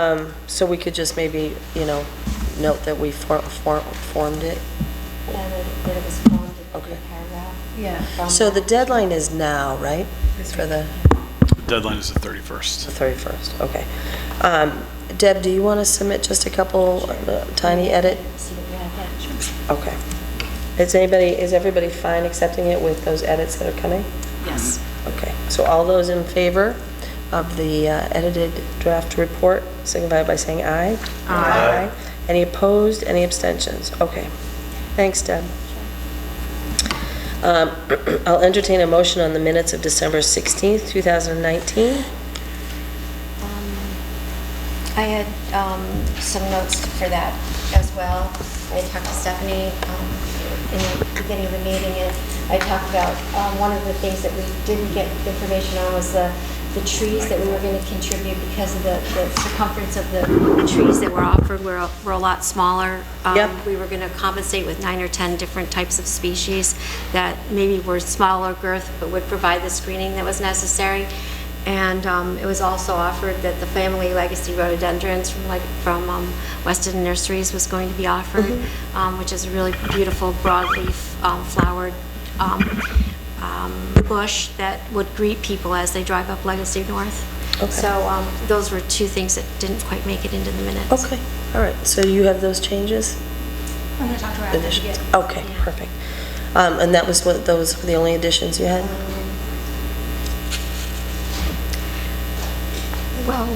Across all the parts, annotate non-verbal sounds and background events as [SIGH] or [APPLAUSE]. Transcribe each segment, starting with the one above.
Um, So we could just maybe, you know, note that we for- for- formed it. Yeah, that it- that it was formed in Okay. a paragraph. Um, Yeah. from So the that. deadline is now, right? For the The deadline is the the 31st. 31st, okay. Um, Deb, do you want to submit just a couple uh, tiny edit? See what we have next. Okay. Is anybody, is everybody fine accepting it with those edits that are coming? Yes. Okay, so all those in favor of the uh, edited draft report signify by saying aye. Aye. Any opposed, any abstentions? Okay. Thanks, Deb. Um, [CLEARS THROAT] I'll entertain a motion on the minutes of December 16th, 2019. Um, I had um, some notes for that as well. I talked to Stephanie um, in the beginning of the meeting, and I talked about, um, one of the things that we didn't get information on was the, the trees that we were going to contribute because of the the circumference of the trees that were offered were, a- were a lot smaller. Um, Yep. We were going to compensate with nine or 10 different types of species that maybe were smaller girth, but would provide the screening that was necessary. And um, it was also offered that the family legacy rhododendrons from like, from um, Weston Nurseries was going to be offered, Mm-hmm. um, which is a really beautiful broadleaf um, flowered um, um, bush that would greet people as they drive up Legacy North. Okay. So um, those were two things that didn't quite make it into the minutes. Okay, all right, so you have those changes? I'm going to talk to her after she Additions? gets. Okay, Yeah. perfect. Um, And that was what, those were the only additions you had? Um, Well,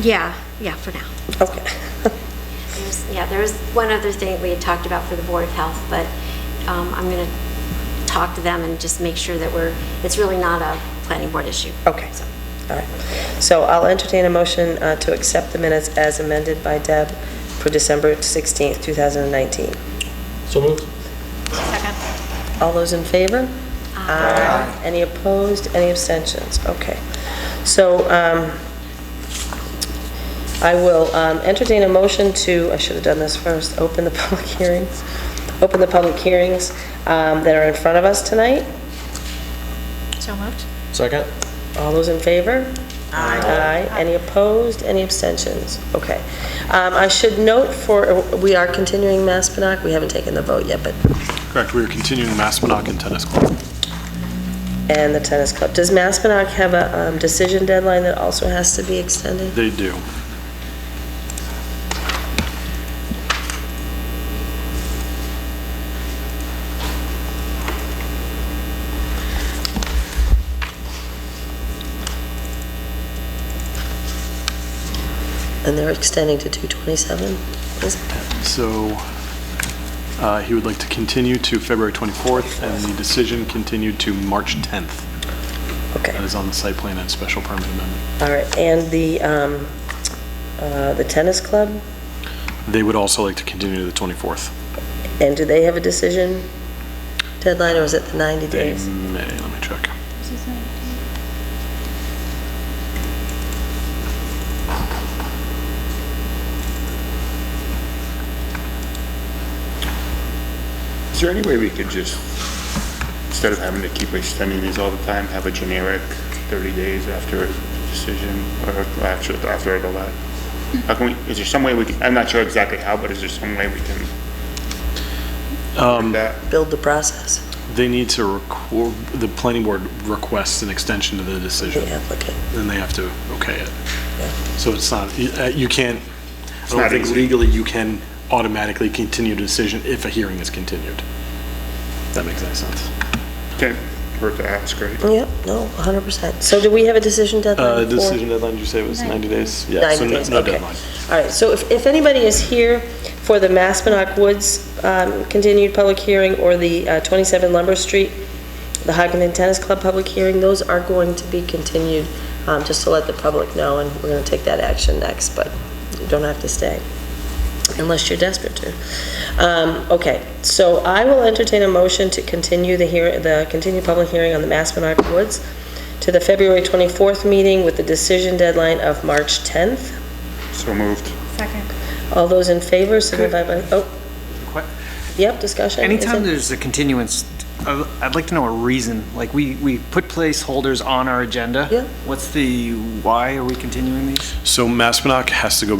yeah, yeah, for now. Okay. [LAUGHS] There's- Yeah, there was one other thing we had talked about for the Board of Health, but um, I'm going to talk to them and just make sure that we're, it's really not a planning board issue. Okay, So, all right. So I'll entertain a motion uh, to accept the minutes as amended by Deb for December 16th, 2019. So moved. All those in favor? Aye. Any opposed, any abstentions? Okay. So um, I will um, entertain a motion to, I should have done this first, open the [LAUGHS] public hearings, open the public hearings um, that are in front of us tonight. So moved? Second? All those in favor? Aye. Aye. Any opposed? Any abstentions? Okay. Um, I should note for, we are continuing Maspinock. We haven't taken the vote yet, but, Correct, we are continuing Maspinock and Tennis Club. and the tennis club. Does Maspinock have a um, decision deadline that also has to be extended? They do. And they're extending to 227? Is it? So uh, he would like to continue to February 24th, and the decision continued to March 10th. Okay. That is on the site plan and special permit amendment. All right. And the, um, uh, the tennis club? They would also like to continue to the 24th. And do they have a decision deadline or is it the 90 They days? may, let me check. Is there any way we could just, instead of having to keep extending these all the time, have a generic 30 days after a decision or after, after a lot? How can we, is there some way we can, I'm not sure exactly how, but is there some way we can? Um. That, Build the process They need to, record the planning board requests an extension to the for decision. the applicant. then they have to okay it. So it's not, you uh, you can't, I don't not think easy. legally you can automatically continue a decision if a hearing is continued. That makes any sense. can't hurt to ask, right? Yep, no, 100%. So do we have a decision Uh, deadline? for- Decision deadline, did you say was 90 days? Yeah, 90 so no days, no okay. deadline. All right, so if, if anybody is here for the Maspinock Woods um, continued public hearing or the uh, 27 Lumber Street, the Hockinton Tennis Club public hearing, those are going to be continued, um, just to let the public know, and we're going to take that action next, but you don't have to stay, unless you're desperate to. Um, Okay, so I will entertain a motion to continue the hear, the continued public hearing on the Maspinock Woods to the February 24th meeting with the decision deadline of March 10th. So moved. Second. All those in favor, signify by, oh, Que- yep, discussion. Is Anytime it- there's a continuance, I- I'd like to know a reason. Like, we, we put placeholders on our agenda. Yeah. What's the, why are we continuing these? So Maspinock has to go